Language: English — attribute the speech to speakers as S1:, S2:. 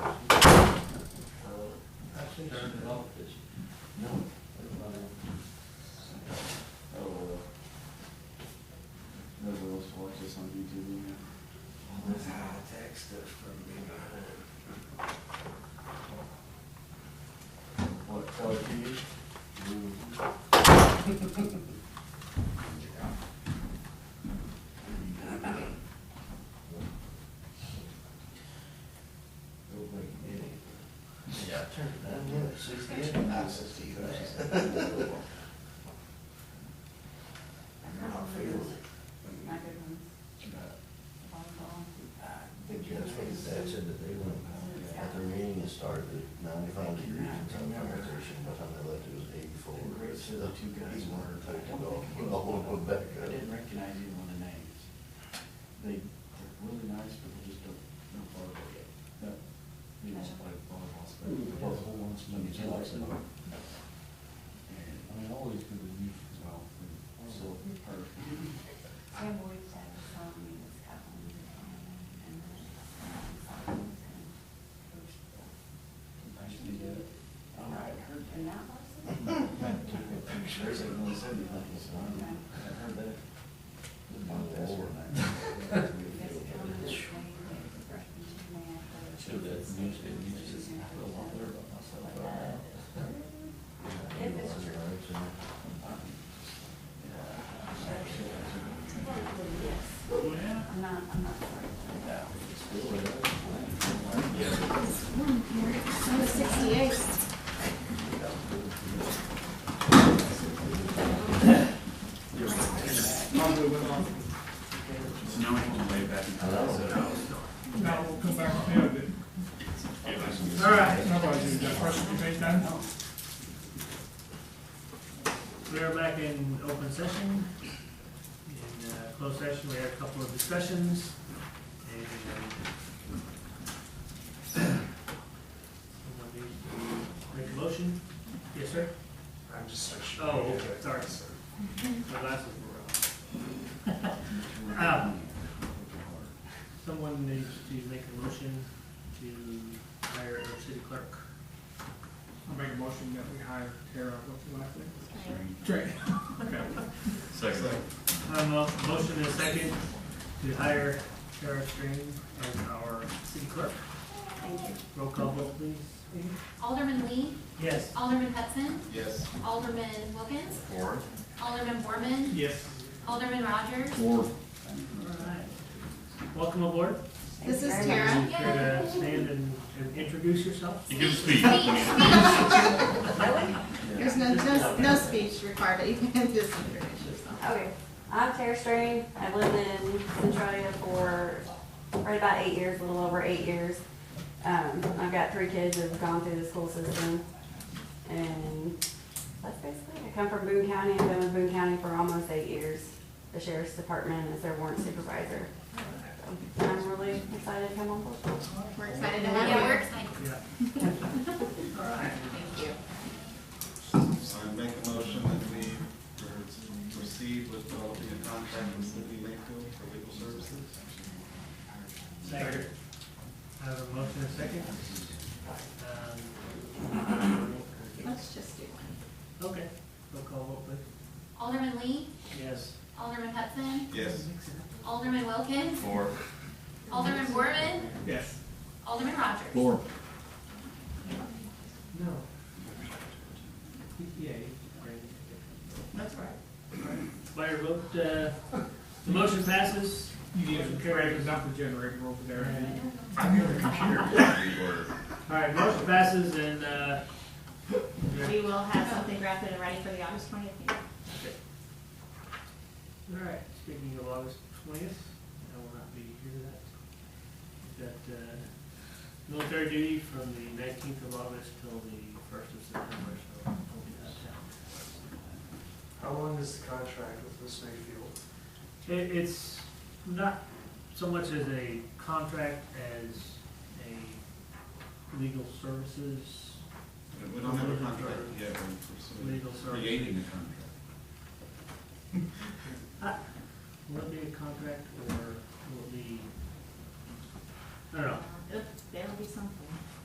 S1: turned it off, did you? No. Everybody.
S2: Oh, well. Nobody wants to watch this on YouTube, you know?
S1: That's how I text us from behind.
S2: What, tell it to you?
S1: Nobody did it. Yeah, I turned it down, yeah, sixty-eight, I sixty, that's.
S3: Not field. My good ones,
S1: I
S3: volleyball.
S1: think that's what the dad said that they went,
S4: At their meeting, it started at ninety-five degrees in some conversation, by the time they left, it was eighty-four.
S2: The great
S4: So
S2: the two guys
S4: He wanted to
S2: were-
S4: take it all, all the way back
S2: I
S4: up.
S2: didn't recognize any one of the names. They, they're really nice, but they just don't, know volleyball yet. No. They don't play volleyball, so they both whole ones, and they like it. And, I mean, all these people use as well, and so, her.
S3: Sam Boyd said the song we just got on the phone and then.
S2: I should do that. I don't know, I heard
S3: And that
S2: that.
S3: was.
S2: I took a picture, it really said anything, so I don't know. I heard that.
S4: My
S3: This
S4: Lord.
S3: gentleman was saying that the freshman team may have to-
S1: Should that music, you just, I feel a lot better about myself.
S3: But, uh, If it's true. Yes. I'm not, I'm not sorry.
S5: Number sixty-eight.
S6: So now we have to lay back and tell us that
S7: Now we'll come back to it. All right, nobody did that first debate then.
S8: We are back in open session. In uh, closed session, we had a couple of discussions. uh, and, um, somebody Make a motion? Yes, sir?
S6: I'm just
S8: Oh, okay, sorry.
S5: Mm-hmm.
S8: My glasses were on. Um, Someone needs to make a motion to hire a city clerk.
S7: I'll make a motion that we hire Tara, what's the last name? Trey. Okay.
S6: Second.
S8: Um, uh, motion and a second to hire Tara Strain as our city clerk.
S5: Thank you. Mm-hmm.
S8: Roll call vote, please.
S5: Alderman Lee,
S8: Yes.
S5: Alderman Hudson,
S6: Yes.
S5: Alderman Wilkins,
S6: Four.
S5: Alderman Borman,
S8: Yes.
S5: Alderman Rogers.
S8: Alright. Welcome aboard.
S5: This is
S3: Thank you very
S5: Tara.
S8: Care to stand and, and introduce yourself?
S6: You give a speech.
S5: There's no, no, no speech required, you can just introduce yourself.
S9: Okay, I'm Tara Strain. I've lived in Centralia for right about eight years, a little over eight years. Um, I've got three kids that have gone through the school system. And that's basically, it. I come from Boone County, I've been with Boone County for almost eight years. The sheriff's department is their warrant supervisor. So I'm really excited to come on board.
S5: We're excited to have you. We're excited.
S8: Yeah. Alright.
S5: Thank you.
S2: So I make a motion that we proceed with developing a contract with City Lakeville for legal services.
S8: Second. I have a motion and a second. Um,
S5: Let's just do one.
S8: Okay, roll call vote, please.
S5: Alderman Lee,
S8: Yes.
S5: Alderman Hudson,
S2: Yes.
S5: Alderman Wilkins,
S6: Four.
S5: Alderman Borman,
S7: Yes.
S5: Alderman Rogers.
S8: No. Yeah, great. That's right. By your vote, uh, the motion passes.
S7: You did, Trey, because not the generator over there.
S6: I'm here to computer.
S8: Alright, motion passes and, uh,
S5: We will have something drafted and ready for the August twentieth meeting.
S8: All right, speaking of August twentieth, I will not be here that. Got, uh, military duty from the nineteenth of August till the first of September, so I'll be out of
S10: How long is the contract with Miss Mayfield?
S8: town. It, it's not so much as a contract as a legal services,
S2: We don't have a contract yet, we're
S8: legal
S2: pursuing, creating
S8: services.
S2: a contract.
S8: Will it be a contract or will it be, I don't know,
S5: There will Um, be something.